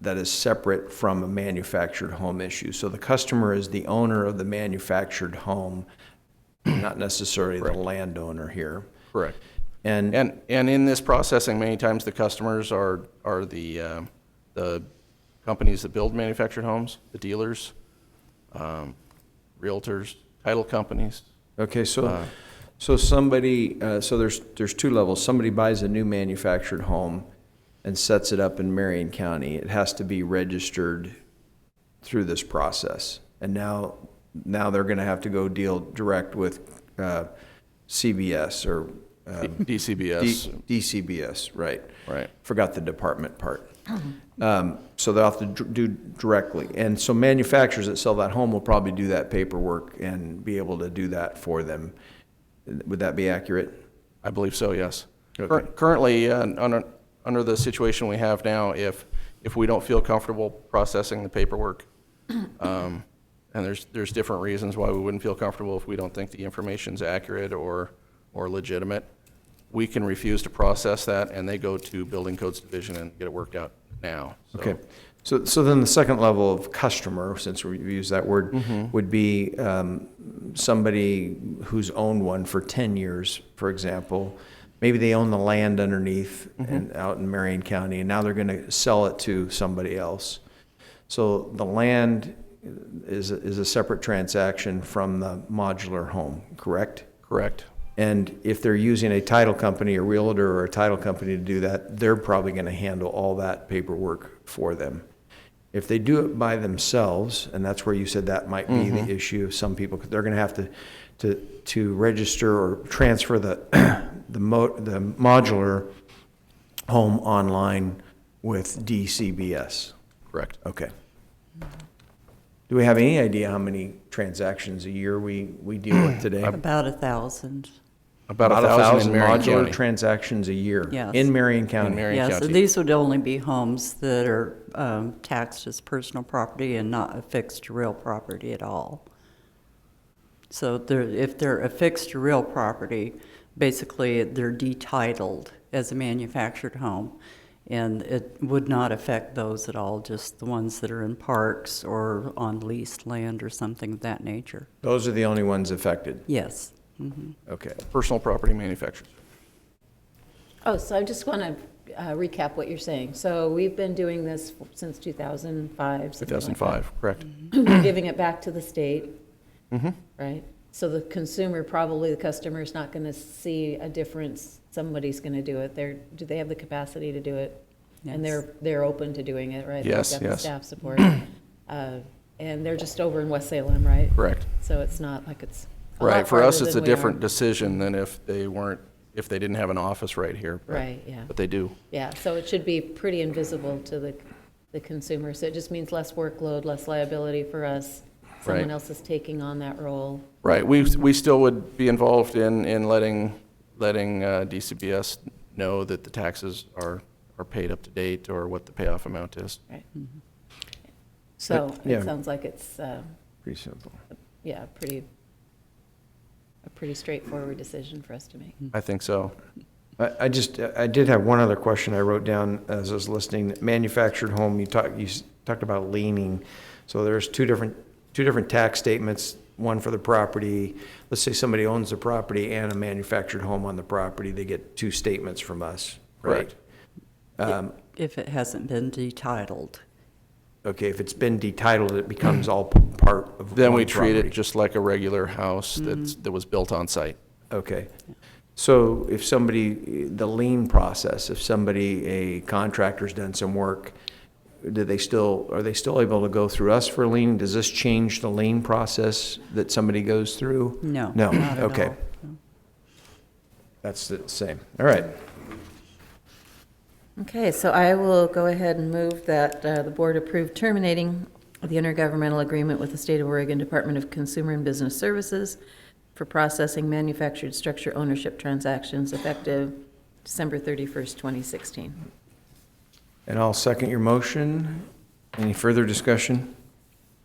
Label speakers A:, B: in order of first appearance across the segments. A: that is separate from a manufactured home issue. So the customer is the owner of the manufactured home, not necessarily the landowner here.
B: Correct.
A: And
B: And, and in this processing, many times the customers are, are the, uh, the companies that build manufactured homes, the dealers, um, realtors, title companies.
A: Okay, so, so somebody, uh, so there's, there's two levels. Somebody buys a new manufactured home and sets it up in Marion County. It has to be registered through this process. And now, now they're gonna have to go deal direct with, uh, CBS or, uh,
B: DCBS,
A: D- DCBS, right.
B: Right.
A: Forgot the department part. Um, So they'll have to dr- do directly. And so manufacturers that sell that home will probably do that paperwork and be able to do that for them. Would that be accurate?
B: I believe so, yes. Cur-
A: Okay.
B: Currently, uh, under, under the situation we have now, if, if we don't feel comfortable processing the paperwork, um, and there's, there's different reasons why we wouldn't feel comfortable if we don't think the information's accurate or, or legitimate, we can refuse to process that, and they go to Building Codes Division and get it worked out now. So
A: Okay. So, so then the second level of customer, since we use that word, would be um, somebody who's owned one for 10 years, for example. Maybe they own the land underneath and out in Marion County, and now they're going to sell it to somebody else. So the land is, is a separate transaction from the modular home, correct?
B: Correct.
A: And if they're using a title company, a realtor or a title company to do that, they're probably going to handle all that paperwork for them. If they do it by themselves, and that's where you said that might be the issue of some people, 'cause they're going to have to, to, to register or transfer the, the mo, the modular home online with DCBS.
B: Correct.
A: Okay. Do we have any idea how many transactions a year we, we deal with today?
C: About a thousand.
B: About a thousand in Marion
A: modular
B: County.
A: transactions a year
C: Yes.
A: in Marion County.
B: Marion
C: Yes,
B: County.
C: and these would only be homes that are um, taxed as personal property and not affixed to real property at all. So they're, if they're affixed to real property, basically they're detitled as a manufactured home. And it would not affect those at all, just the ones that are in parks or on leased land or something of that nature.
A: Those are the only ones affected.
C: Yes.
A: Okay.
B: Personal property manufacturers.
D: Oh, so I just want to recap what you're saying. So we've been doing this since 2005. something like that.
B: 2005, correct.
D: We're Giving it back to the state,
B: Mm-hmm.
D: right? So the consumer, probably the customer, is not going to see a difference. Somebody's going to do it. They're, do they have the capacity to do it? And
C: Yes.
D: they're, they're open to doing it, right? They've
B: Yes,
D: got the
B: yes.
D: Staff support. Uh, And they're just over in West Salem, right?
B: Correct.
D: So it's not like it's a lot
B: Right, for us,
D: farther
B: it's a
D: than we are.
B: different decision than if they weren't, if they didn't have an office right here. but-
D: Right, yeah.
B: But they do.
D: Yeah, so it should be pretty invisible to the, the consumer. So it just means less workload, less liability for us. Someone
B: Right.
D: else is taking on that role.
B: Right, we, we still would be involved in, in letting, letting uh, DCBS know that the taxes are, are paid up to date or what the payoff amount is.
D: Mm-hmm. So
A: yeah.
D: it sounds like it's, uh,
A: Pretty simple.
D: yeah, pretty, a pretty straightforward decision for us to make.
B: I think so.
A: I, I just, I did have one other question I wrote down as I was listening. Manufactured home, you talked, you s- talked about leaning. So there's two different, two different tax statements, one for the property. Let's say somebody owns the property and a manufactured home on the property, they get two statements from us, right? Um,
B: Correct.
C: If it hasn't been detitled.
A: Okay, if it's been detitled, it becomes all p- part of
B: Then we
A: one
B: treat
A: property.
B: it just like a regular house
D: Mm-hmm.
B: that's, that was built on site.
A: Okay. So if somebody, the lien process, if somebody, a contractor's done some work, do they still, are they still able to go through us for lien? Does this change the lien process that somebody goes through?
C: No.
A: No,
C: not at
A: okay.
C: all. No.
A: That's the same. All right.
D: Okay, so I will go ahead and move that uh, the board approve terminating the intergovernmental agreement with the State of Oregon Department of Consumer and Business Services for processing manufactured structure ownership transactions effective December 31st, 2016.
A: And I'll second your motion. Any further discussion?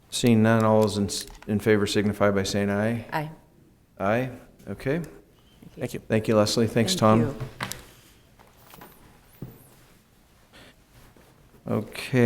A: Seeing none, all those in, in favor signify by saying aye.
D: Aye.
A: Aye? Okay.
B: Thank you.
A: Thank you, Leslie. Thanks,
D: Thank
A: Tom.
D: you.
A: Okay.